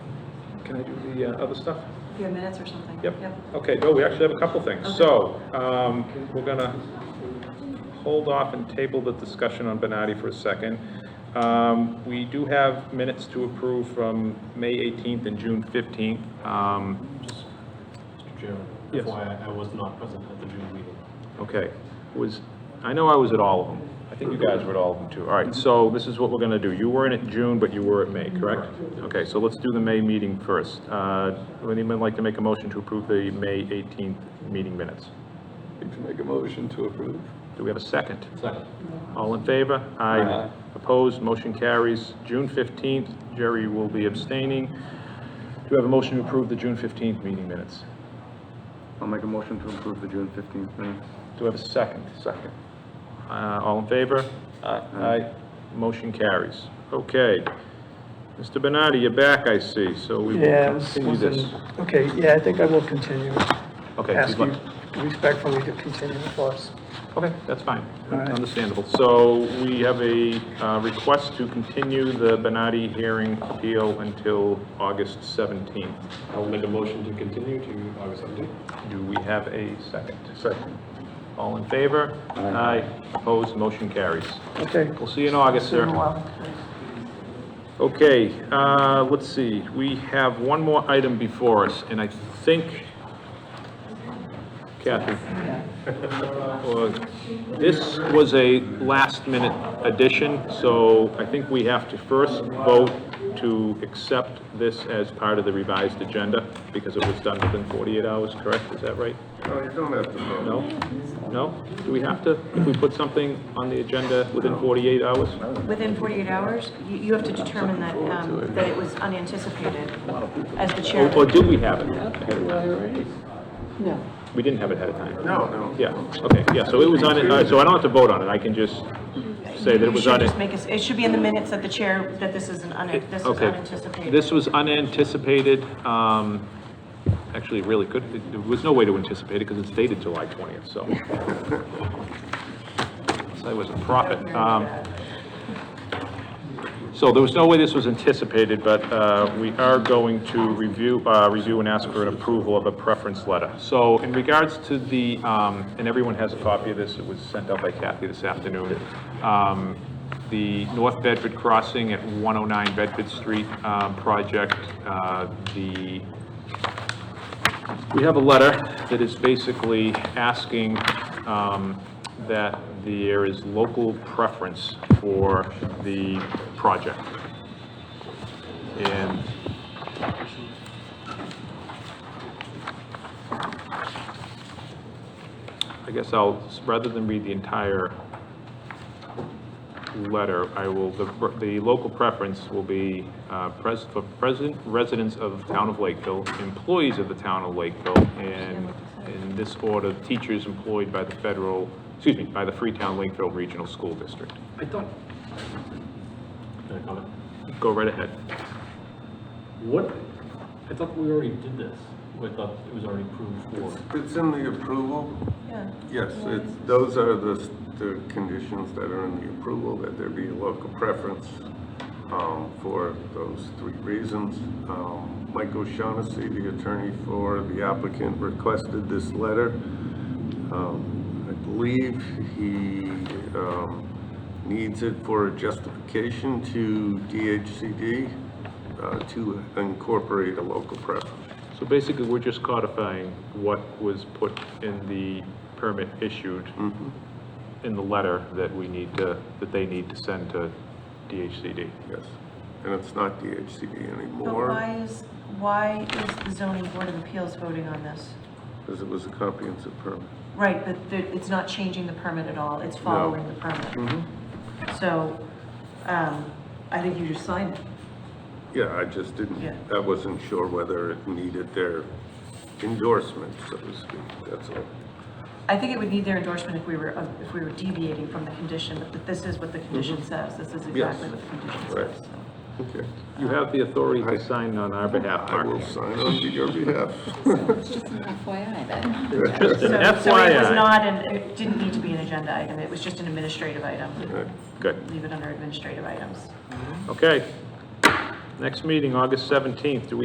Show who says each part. Speaker 1: Can I do the uh, other stuff?
Speaker 2: Your minutes or something?
Speaker 1: Yep. Okay, no, we actually have a couple things. So, um, we're gonna hold off and table the discussion on Benatti for a second. Um, we do have minutes to approve from May 18th and June 15th. Um,
Speaker 3: Just, Mr. Chairman,
Speaker 1: Yes.
Speaker 3: FYI, I was not present at the June meeting.
Speaker 1: Okay, was, I know I was at all of them. I think you guys were at all of them too. All right, so this is what we're gonna do. You weren't at June, but you were at May, correct? Okay, so let's do the May meeting first. Uh, would anyone like to make a motion to approve the May 18th meeting minutes?
Speaker 4: You can make a motion to approve.
Speaker 1: Do we have a second?
Speaker 3: Second.
Speaker 1: All in favor?
Speaker 4: Aye.
Speaker 1: Opposed, motion carries. June 15th, Jerry will be abstaining. Do you have a motion to approve the June 15th meeting minutes?
Speaker 4: I'll make a motion to approve the June fifteenth minutes.
Speaker 1: Do we have a second?
Speaker 4: Second.
Speaker 1: Uh, All in favor? Aye. Motion carries. Okay. Mr. Bernardi, you're back, I see, so we
Speaker 5: Yeah,
Speaker 1: will
Speaker 5: this
Speaker 1: continue this.
Speaker 5: wasn't- okay, yeah, I think I will continue.
Speaker 1: Okay,
Speaker 5: Ask
Speaker 1: you'd
Speaker 5: you
Speaker 1: like-
Speaker 5: respectfully to continue the course.
Speaker 1: Okay, that's fine.
Speaker 5: All right.
Speaker 1: Understandable. So we have a uh, request to continue the Benatti hearing appeal until August 17th.
Speaker 3: I will make a motion to continue to August 17th.
Speaker 1: Do we have a second? Second. All in favor? Aye. Opposed, motion carries.
Speaker 5: Okay.
Speaker 1: We'll see you in August,
Speaker 5: See you
Speaker 1: sir.
Speaker 5: in a while.
Speaker 1: Okay, uh, let's see, we have one more item before us, and I think, Kathy, uh, this was a last-minute addition, so I think we have to first vote to accept this as part of the revised agenda, because it was done within 48 hours, correct? Is that right?
Speaker 4: No, you don't have to vote.
Speaker 1: No? No? Do we have to, if we put something on the agenda within 48 hours?
Speaker 2: Within 48 hours, you, you have to determine that, um, that it was unanticipated as the
Speaker 1: Or or
Speaker 2: chair.
Speaker 1: did we have Oh, it ahead of time?
Speaker 2: No.
Speaker 1: We didn't have it ahead of time.
Speaker 4: No, no.
Speaker 1: Yeah, okay, yeah, so it was on, it. all right, so I don't have to vote on it, I can just say that it
Speaker 2: You
Speaker 1: was
Speaker 2: should
Speaker 1: on it.
Speaker 2: just make us, it should be in the minutes that the chair, that this is an, un- this is
Speaker 1: Okay,
Speaker 2: unanticipated.
Speaker 1: this was unanticipated, um, actually really good, there was no way to anticipate it because it's dated July 20th, so. So it was a profit. Um, So there was no way this was anticipated, but uh, we are going to review, uh, review and ask for an approval of a preference letter. So in regards to the, um, and everyone has a copy of this, it was sent out by Kathy this afternoon, um, the North Bedford Crossing at 109 Bedford Street um, project, uh, the we have a letter that is basically asking um, that there is local preference for the project. And I guess I'll, rather than read the entire letter, I will, the, the local preference will be, uh, pres, for present residents of the town of Lakeville, employees of the town of Lakeville, and in this order, teachers employed by the federal, excuse me, by the Freetown Lakeville Regional School District.
Speaker 3: I thought. Can I comment?
Speaker 1: Go right ahead.
Speaker 3: What, I thought we already did this. I thought it was already approved for.
Speaker 4: It's in the approval.
Speaker 2: Yeah.
Speaker 4: Yes, it's, those are the, s- the conditions that are in the approval, that there be a local preference, um, for those three reasons. Um, Mike O'Shaughnessy, the attorney for the applicant, requested this letter. Um, I believe he, um, needs it for a justification to DHCD, uh, to incorporate a local preference.
Speaker 1: So basically, we're just codifying what was put in the permit issued
Speaker 4: Mm-hmm.
Speaker 1: in the letter that we need to, that they need to send to DHCD.
Speaker 4: Yes, and it's not DHCD
Speaker 2: But
Speaker 4: anymore,
Speaker 2: why is, why is the zoning board of appeals voting on this?
Speaker 4: because it was a comprehensive permit.
Speaker 2: Right, but the- it's not changing the permit at all, it's following the permit.
Speaker 1: Mm-hmm.
Speaker 2: So, um, I think you just signed it.
Speaker 4: Yeah, I just
Speaker 2: Yeah.
Speaker 4: didn't, I wasn't sure whether it needed their endorsement, so to speak, that's all.
Speaker 2: I think it would need their endorsement if we were, if we were deviating from the condition, but this is what the condition says, this is exactly what the condition
Speaker 4: Right.
Speaker 2: says. so.
Speaker 4: Okay,
Speaker 1: You have the authority to sign on our behalf,
Speaker 4: I
Speaker 1: Mark.
Speaker 4: will sign on to your behalf.
Speaker 6: It's just an FYI then.
Speaker 1: Just an
Speaker 2: So- So it was
Speaker 1: FYI.
Speaker 2: not, an- it didn't need to be an agenda item, it was just an administrative item.
Speaker 4: Right.
Speaker 1: Good.
Speaker 2: Leave it under administrative items.
Speaker 1: Okay. Next meeting, August 17th. Do we